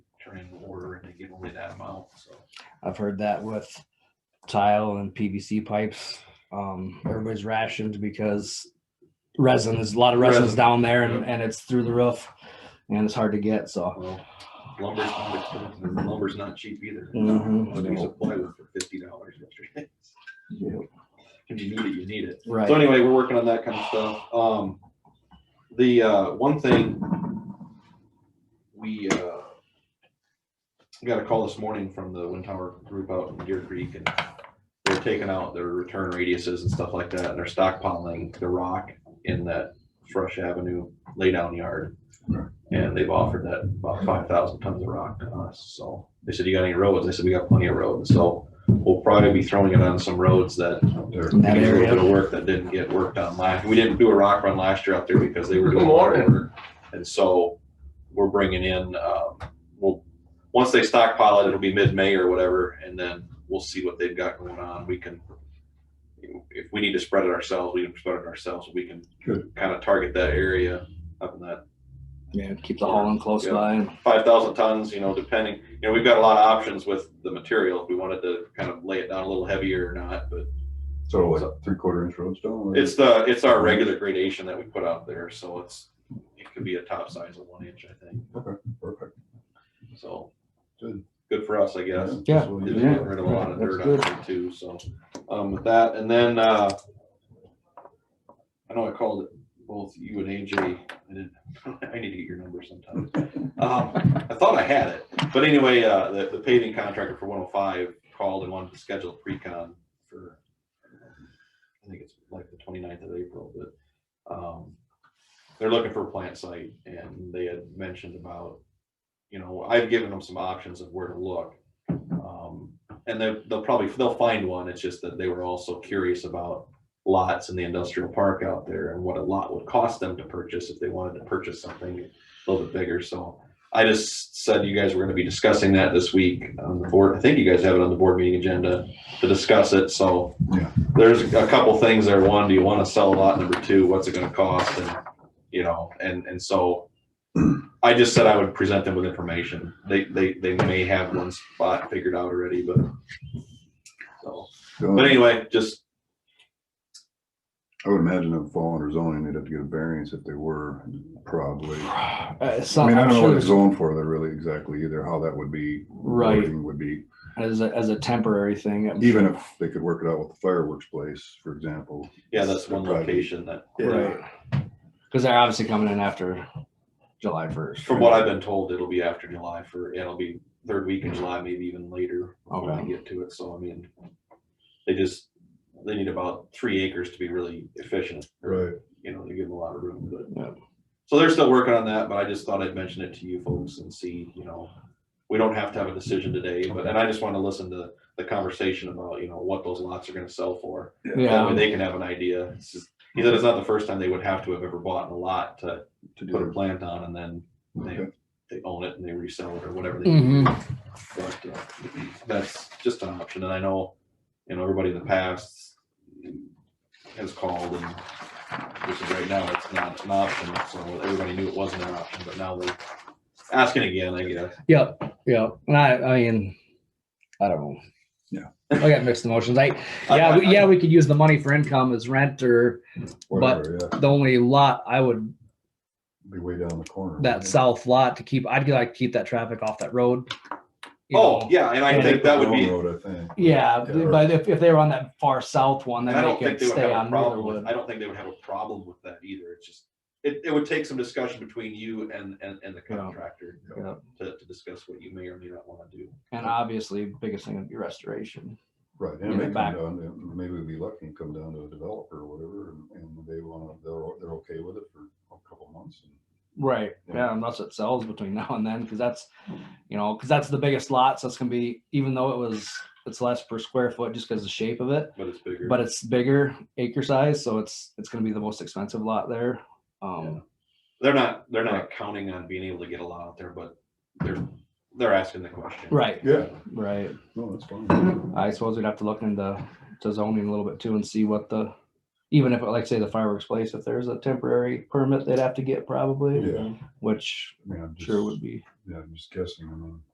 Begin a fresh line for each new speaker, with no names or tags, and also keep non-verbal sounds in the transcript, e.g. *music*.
give away that amount, so.
I've heard that with tile and PVC pipes. Um, everybody's rationed because resin is a lot of resin is
Resin.
down there and,
Yep.
and it's through the roof and it's hard to get. So
Well, lumber's not expensive, and lumber's not cheap either.
Mhm.
A piece of plywood for fifty dollars yesterday.
yeah,
If you need it, you need it.
right.
So anyway, we're working on that kind of stuff. Um, the, uh, one thing we, uh, got a call this morning from the wind tower group out in Deer Creek and they're taking out their return radiuses and stuff like that. And they're stockpiling the rock in that Fresh Avenue laydown yard. And they've offered that about five thousand tons of rock to us. So they said, you got any roads? I said, we got plenty of roads. So we'll probably be throwing it on some roads that
In that
we did a little
area.
bit of work that didn't get worked on last, we didn't do a rock run last year out there because they were
Good
doing water
morning.
work. And so we're bringing in, um, we'll, once they stockpile it, it'll be mid-May or whatever, and then we'll see what they've got going on. We can, if we need to spread it ourselves, we can spread it ourselves. We can
Good.
kind of target that area up in that
Yeah, keep the hauling close
Yeah.
by. and-
five thousand tons, you know, depending, you know, we've got a lot of options with the material. If we wanted to kind of lay it down a little heavier or not, but
So what, three quarter inch road stone?
It's the, it's our regular gradation that we put out there, so it's, it could be a top size of one inch, I think,
Perfect.
so.
Good.
Good for us, I guess.
Yeah,
that's what
Just
you
yeah.
do.
getting rid of a lot of
That's
dirt
good.
out there too, so, um, with that, and then, uh. I know I called both you and AJ, I didn't, *laughs* I need to get your number sometime. Um, I thought I had it, but anyway, uh, the, the paving contractor for one oh five called and wanted to schedule a pre-con for. I think it's like the 29th of April, but, um, they're looking for a plant site and they had mentioned about. You know, I've given them some options of where to look. Um, and they'll, they'll probably, they'll find one. It's just that they were also curious about lots in the industrial park out there and what a lot would cost them to purchase if they wanted to purchase something a little bit bigger. So I just said you guys were gonna be discussing that this week on the board. I think you guys have it on the board meeting agenda to discuss it, so.
Yeah.
There's a couple things there. One, do you wanna sell a lot? Number two, what's it gonna cost? And, you know, and, and so I just said I would present them with information. They, they, they may have one spot figured out already, but. So,
So
but anyway, just
I would imagine if fall under zoning, they'd have to get a variance if they were, probably. I
Uh, so
mean, I
I'm
don't know
sure
what it's
it's-
zoned for, there really exactly either, how that would be.
Right.
wording Would be,
as a, as a temporary thing. I'm
even if they could work it out with the fireworks place, for example.
Yeah, that's one
Probably.
location that,
sure- right, because they're obviously coming in after July first.
from what I've been told, it'll be after July for, it'll be third week in July, maybe even later when I
Okay.
get to it. So I mean, they just, they need about three acres to be really efficient. or, You know, they give them a lot of room,
Yeah.
but. So they're still working on that, but I just thought I'd mention it to you folks and see, you know, we don't have to have a decision today, but, and I just want to listen to the conversation about, you know, what those lots are gonna sell for. That way
Yeah,
they can have an idea. It's just- He said it's not the first time they would have to have ever bought a lot to
To
put a
do.
plant on and then they,
Okay.
they own it and they resell it or whatever. they do.
Mhm.
But uh, that's just an option. And I know, you know, everybody in the past has called and just right now it's not an option. So everybody knew it wasn't an option, but now they're asking again, I guess.
Yep, yep. And I, I mean, I don't know.
Yeah.
I got mixed emotions. I,
I-
yeah,
I-
we, yeah, we could use the money for income as rent or
Whatever, yeah,
the only lot I would,
be way down the corner.
that south lot to keep, I'd like to keep that traffic off that road. you
Oh,
know.
yeah. And I
And
think that would be,
Road, I think.
Yeah,
Yeah.
but if, if they were on that far south one,
And I
then they
don't think
could
they would
stay
have a
on
problem with,
Motherwood.
I don't think they would have a problem with that either. It's just, it, it would take some discussion between you and, and, and the
Yeah.
contractor you know, to, to discuss what you may or may not want to do.
And obviously, biggest thing would be restoration.
Right,
in
and it
the
may come
back.
down, to- maybe we'd be lucky and come down to a developer or whatever, and- and they want, they're, o- they're okay with it for a couple of months. and-
Right. Yeah, unless it sells between *laughs* now and then, because that's, you know, because that's the biggest lot, so it's gonna be, even though it was, it's less per square foot just because the shape of it.
But it's bigger.
but it's bigger acre size, so it's it's gonna be the most expensive lot there. Um,
They're not, they're not counting on being able to get a lot out there, but they're, they're asking the question.
right,
Yeah,
right.
no, that's fine.
I suppose we'd have to look into to zoning a little bit too and see what the, even if like say the fireworks place, if there's a temporary permit they'd have to get probably,
Yeah.
which
I mean, I'm
sure
just-
would be.
Yeah, I'm just guessing, I mean,